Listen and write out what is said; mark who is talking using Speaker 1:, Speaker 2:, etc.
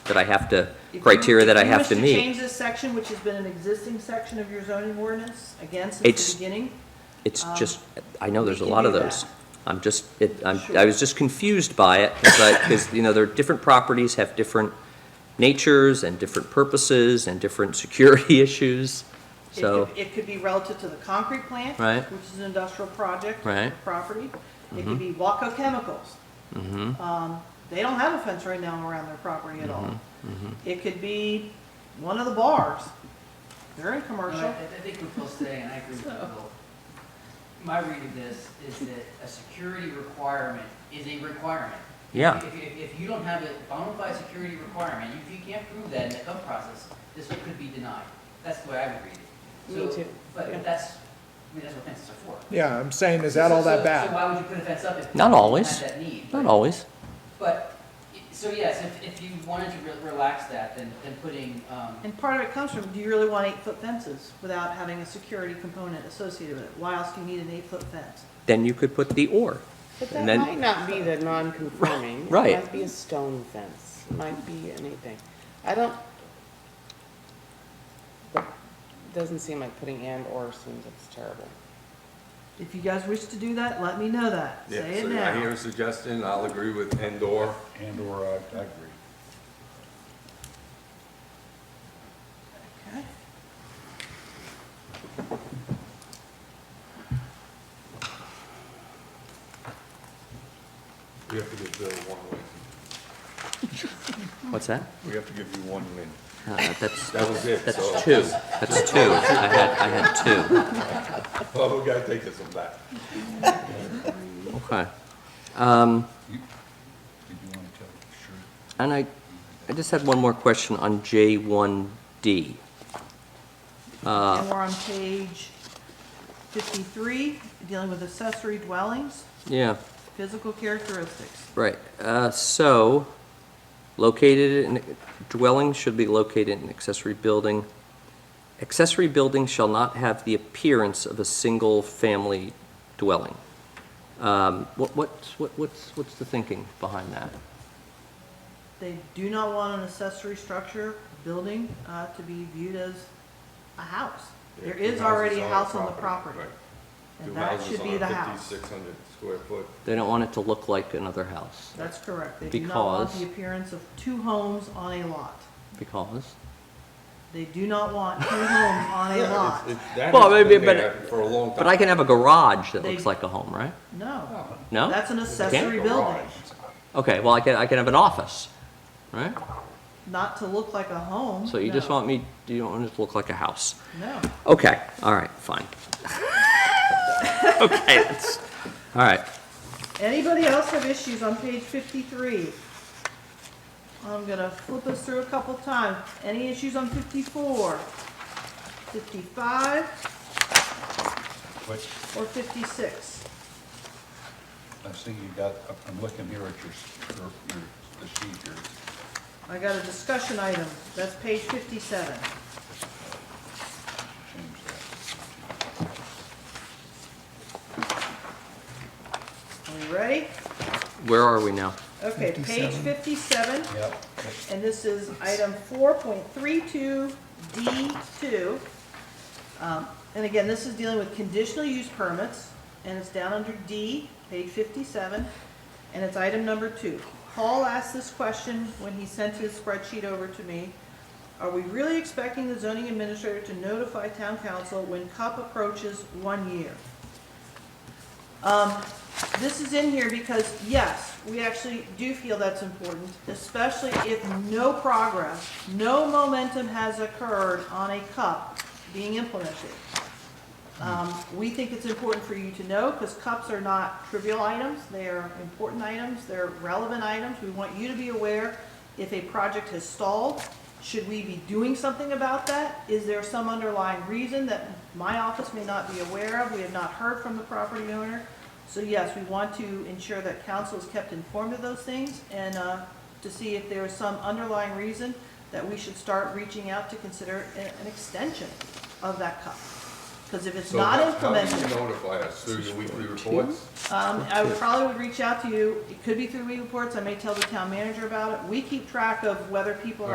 Speaker 1: that I have to,
Speaker 2: If you-
Speaker 1: criteria that I
Speaker 2: if you
Speaker 1: have
Speaker 2: wish
Speaker 1: to
Speaker 2: change
Speaker 1: meet.
Speaker 2: this section, which has been an existing section of your zoning ordinance, again, since
Speaker 1: It's-
Speaker 2: the beginning,
Speaker 1: It's
Speaker 2: um,
Speaker 1: just, I know
Speaker 2: we
Speaker 1: there's a
Speaker 2: can
Speaker 1: lot of
Speaker 2: do that.
Speaker 1: those. I'm just, it, I'm, I
Speaker 2: Sure.
Speaker 1: was just confused by it, because, you know, there are different properties have different natures and different purposes and different security issues,
Speaker 2: it
Speaker 1: so.
Speaker 2: could, it could be relative to the concrete plant,
Speaker 1: Right.
Speaker 2: which is an industrial project,
Speaker 1: Right. Mm-hmm.
Speaker 2: property. It could be Waco Chemicals. Um, They don't have a fence right now around their property at all.
Speaker 1: Mm-hmm.
Speaker 2: It could be one of the bars. They're in
Speaker 3: Well,
Speaker 2: commercial.
Speaker 3: I I think what Phil's saying, and I agree with
Speaker 2: So-
Speaker 3: Phil, my read of this is that a security requirement is a requirement.
Speaker 1: Yeah.
Speaker 3: If, if, if you don't have a bona fide security requirement, if you can't prove that in the code process, this could be denied. That's the way I would read it.
Speaker 2: Me
Speaker 3: So-
Speaker 2: too, yeah.
Speaker 3: But that's, I mean, that's what fences are for.
Speaker 4: Yeah, I'm saying, is that all
Speaker 3: So-
Speaker 4: that
Speaker 3: So
Speaker 4: bad?
Speaker 3: why would you put a fence up if?
Speaker 1: Not
Speaker 3: you didn't
Speaker 1: always.
Speaker 3: Have that need.
Speaker 1: Not
Speaker 3: but-
Speaker 1: always.
Speaker 3: But, so yes, if, if you wanted to re- relax that, then, then putting, um,
Speaker 2: And part of it comes from, do you really want eight-foot fences without having a security component associated with it? Why else do you need an eight-foot fence?
Speaker 1: Then you could put the or.
Speaker 5: But
Speaker 1: And
Speaker 5: that
Speaker 1: then-
Speaker 5: might not be the non-conforming.
Speaker 1: Right.
Speaker 5: It might be a stone fence, It might be anything. I don't, doesn't seem like putting and or seems it's terrible.
Speaker 2: If you guys wish to do that, let me know that.
Speaker 6: Yeah,
Speaker 2: Say it
Speaker 6: so
Speaker 2: now.
Speaker 6: I hear a suggestion, I'll agree with Endor.
Speaker 7: And/or I I agree.
Speaker 2: Okay.
Speaker 6: We have to give Bill one win.
Speaker 1: What's that?
Speaker 6: We have to give you one win.
Speaker 1: Uh, That's,
Speaker 6: That was it, so.
Speaker 1: that's two. That's two. I had, I had two.
Speaker 6: Oh, we gotta take this one back.
Speaker 1: Okay.
Speaker 7: Did you want to tell the truth?
Speaker 1: And I, I just had one more question on J1D.
Speaker 2: And we're on page fifty-three, dealing with accessory dwellings,
Speaker 1: Yeah,
Speaker 2: physical characteristics.
Speaker 1: right. Uh, So located in, dwelling should be located in accessory building. Accessory building shall not have the appearance of a single-family dwelling. Um, What, what's, what- what's, what's the thinking behind that?
Speaker 2: They do not want an accessory structure, building, uh, to be viewed as a house. There
Speaker 6: Yeah, two
Speaker 2: is already a
Speaker 6: houses
Speaker 2: house on the property,
Speaker 6: right. Two
Speaker 2: and that
Speaker 6: houses
Speaker 2: should
Speaker 6: on
Speaker 2: be
Speaker 6: a
Speaker 2: the house.
Speaker 6: 5,600 square foot.
Speaker 1: They don't want it to look like another house
Speaker 2: That's correct. They do not want
Speaker 1: Because-
Speaker 2: the appearance of two homes on a lot.
Speaker 1: because,
Speaker 2: They do not want two homes on a
Speaker 6: Yeah,
Speaker 2: lot.
Speaker 6: it's- it's- that
Speaker 1: Well,
Speaker 6: has
Speaker 1: maybe,
Speaker 6: been
Speaker 1: but-
Speaker 6: there For a long time.
Speaker 1: but I can have a garage that looks
Speaker 2: They-
Speaker 1: like a home, right?
Speaker 2: No,
Speaker 1: No?
Speaker 2: that's an accessory building.
Speaker 1: Okay, well, I can, I can have an office, right?
Speaker 2: Not to look like a home.
Speaker 1: So you just
Speaker 2: no.
Speaker 1: want me, you don't want it to look like a house?
Speaker 2: No.
Speaker 1: Okay, all right, fine. Okay, that's, all right.
Speaker 2: Anybody else have issues on page fifty-three? I'm gonna flip us through a couple times. Any issues on fifty-four? Fifty-five
Speaker 7: But
Speaker 2: or fifty-six?
Speaker 7: I see you got, I'm looking here at your, s- your, your- the sheet here.
Speaker 2: I got a discussion item. That's page fifty-seven.
Speaker 7: Change that.
Speaker 2: Are we ready?
Speaker 1: Where are we now?
Speaker 2: Okay, page fifty-seven,
Speaker 7: Yep.
Speaker 2: and this is item four point three-two D two. Um, And again, this is dealing with conditional use permits, and it's down under D, page fifty-seven, and it's item number two. Paul asked this question when he sent his spreadsheet over to me. Are we really expecting the zoning administrator to notify town council when CUP approaches one year? Um, this is in here because, yes, we actually do feel that's important, especially if no progress, no momentum has occurred on a cup being implemented. Um, we think it's important for you to know, because cups are not trivial items, they are important items, they're relevant items. We want you to be aware if a project has stalled, should we be doing something about that? Is there some underlying reason that my office may not be aware of, we have not heard from the property owner? So yes, we want to ensure that council is kept informed of those things and uh, to see if there is some underlying reason that we should start reaching out to consider a- an extension of that cup. Because if it's
Speaker 6: So
Speaker 2: not
Speaker 6: how- How do
Speaker 2: implemented,
Speaker 6: you notify us? Through your weekly reports?
Speaker 2: um, I would probably would reach out to you. It could be through reports. I may tell the town manager about it. We keep track of whether people are